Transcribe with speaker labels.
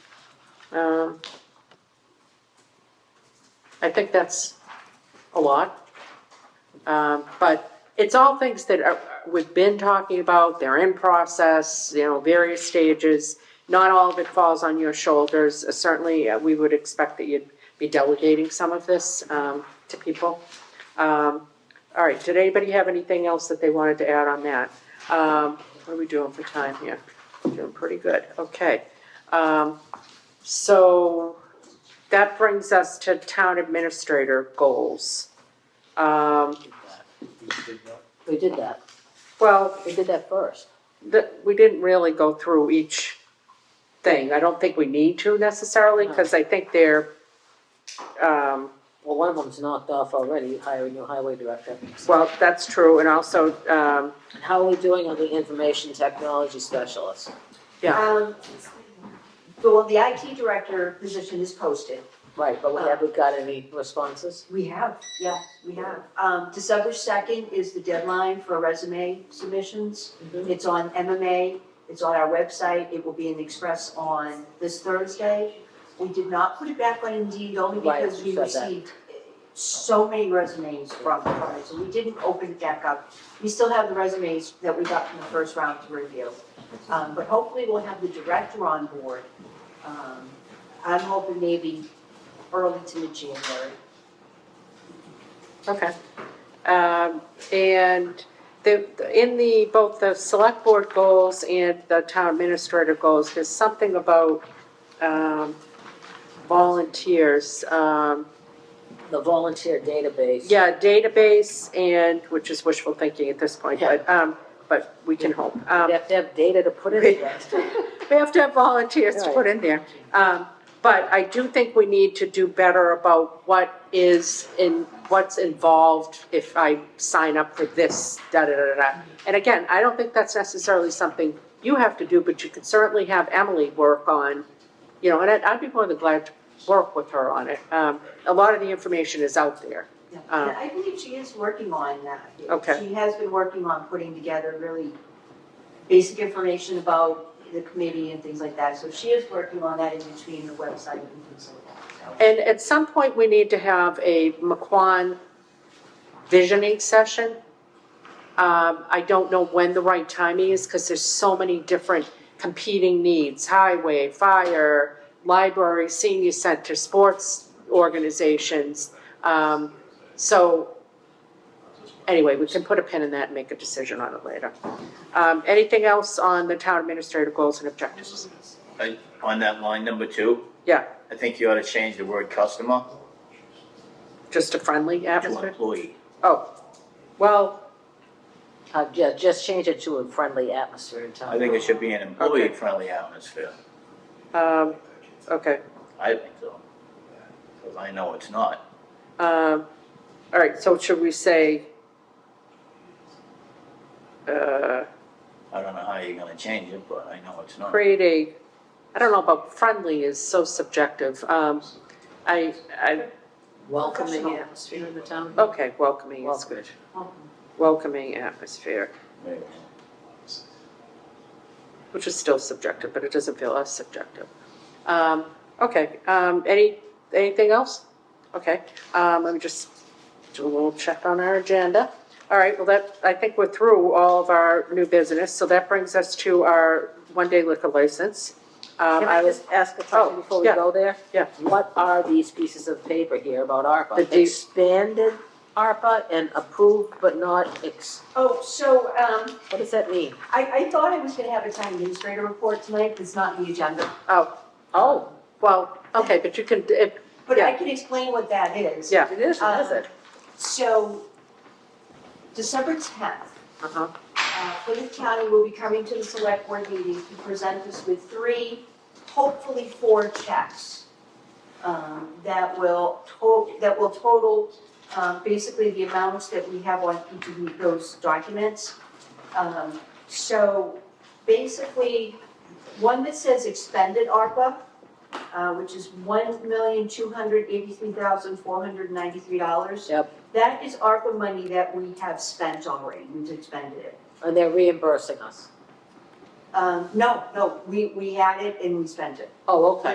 Speaker 1: Um, I think that's a lot. Um, But it's all things that are- we've been talking about, they're in process, you know, various stages. Not all of it falls on your shoulders. Certainly, uh, we would expect that you'd be delegating some of this um, to people. Um, All right, did anybody have anything else that they wanted to add on that? Um, What are we doing for time here? Doing pretty good, okay. Um, So that brings us to town administrator goals. Um,
Speaker 2: We did that.
Speaker 1: Well,
Speaker 2: We did that first.
Speaker 1: the, we didn't really go through each thing. I don't think we need to necessarily, because I think they're, um,
Speaker 2: Well, one of them's knocked off already, hiring new highway director.
Speaker 1: well, that's true, and also, um,
Speaker 2: And How are we doing on the information technology specialist?
Speaker 3: Um, the, well, the IT director position is posted.
Speaker 2: Right, but we- have we got any responses?
Speaker 3: We have, yeah, we have. Um, December second is the deadline for resume submissions.
Speaker 2: Mhm.
Speaker 3: It's on MMA, it's on our website, it will be in the Express on this Thursday. We did not put it back on Indeed only
Speaker 2: Right,
Speaker 3: because we
Speaker 2: you said that.
Speaker 3: received so many resumes from the party, so we didn't open it back up. We still have the resumes that we got from the first round to review. Um, but hopefully we'll have the director on board. Um, I'm hoping maybe early to mid-January.
Speaker 1: okay. Um, and the, in the, both the select board goals and the town administrator goals, there's something about, um, volunteers, um,
Speaker 2: The volunteer database.
Speaker 1: Yeah, database and, which is wishful thinking at this point, but, um, but we can hope.
Speaker 2: We
Speaker 1: Um,
Speaker 2: have to have data to put in there.
Speaker 1: we have to have volunteers to
Speaker 2: Right.
Speaker 1: put in there. Um, but I do think we need to do better about what is in, what's involved if I sign up for this, da-da-da-da. And again, I don't think that's necessarily something you have to do, but you could certainly have Emily work on, you know, and I'd, I'd be more than glad to work with her on it. Um, a lot of the information is out there.
Speaker 3: Yeah,
Speaker 1: Um,
Speaker 3: I believe she is working on that.
Speaker 1: Okay.
Speaker 3: She has been working on putting together really basic information about the committee and things like that. So she is working on that in between the website and things like that.
Speaker 1: And at some point, we need to have a McQuan visioning session. Um, I don't know when the right timing is, because there's so many different competing needs, highway, fire, library, senior center, sports organizations. Um, so, anyway, we can put a pin in that and make a decision on it later. Um, anything else on the town administrator goals and objectives?
Speaker 4: I- On that line number two,
Speaker 1: Yeah,
Speaker 4: I think you ought to change the word customer
Speaker 1: just a friendly
Speaker 4: to
Speaker 1: atmosphere?
Speaker 4: employee.
Speaker 1: Oh, well,
Speaker 2: Uh, ju- just change it to a friendly atmosphere in town.
Speaker 4: I think it should be an employee-friendly atmosphere.
Speaker 1: Um, okay,
Speaker 4: I think so. Because I know it's not.
Speaker 1: um, all right, so should we say? Uh,
Speaker 4: I don't know how you're gonna change it, but I know it's not.
Speaker 1: create a, I don't know about friendly is so subjective, um, I, I,
Speaker 2: Welcoming atmosphere in the town.
Speaker 1: okay, welcoming is good. Welcoming atmosphere,
Speaker 4: Maybe.
Speaker 1: which is still subjective, but it doesn't feel as subjective. Um, okay, um, any, anything else? Okay, um, let me just do a little check on our agenda. All right, well, that, I think we're through all of our new business, so that brings us to our one-day liquor license. Um,
Speaker 2: Can I
Speaker 1: was-
Speaker 2: just ask a
Speaker 1: Oh,
Speaker 2: question before we
Speaker 1: yeah.
Speaker 2: go there?
Speaker 1: Yeah.
Speaker 2: What are these pieces of paper here about
Speaker 1: The
Speaker 2: ARPA?
Speaker 1: D-
Speaker 2: Expanded ARPA and approved but not ex,
Speaker 3: Oh, so, um,
Speaker 2: what does that mean?
Speaker 3: I, I thought I was gonna have a town administrator report tonight, but it's not in the agenda.
Speaker 1: Oh,
Speaker 2: Oh,
Speaker 1: well, okay, but you can, if,
Speaker 3: But I
Speaker 1: Yeah.
Speaker 3: can explain what that is.
Speaker 1: Yeah.
Speaker 2: it is, it is it?
Speaker 3: So, December tenth,
Speaker 1: uh-huh,
Speaker 3: Uh, Plymouth County will be coming to the select board meeting to present us with three, hopefully four checks um, that will to, that will total, um, basically the amounts that we have on each of those documents. Um, so basically, one that says expended ARPA, uh, which is one million, two hundred eighty-three thousand, four hundred ninety-three dollars.
Speaker 2: Yep.
Speaker 3: That is ARPA money that we have spent already, we've expended it.
Speaker 2: And they're reimbursing us.
Speaker 3: Um, no, no, we, we had it and we spent it.
Speaker 2: Oh, okay.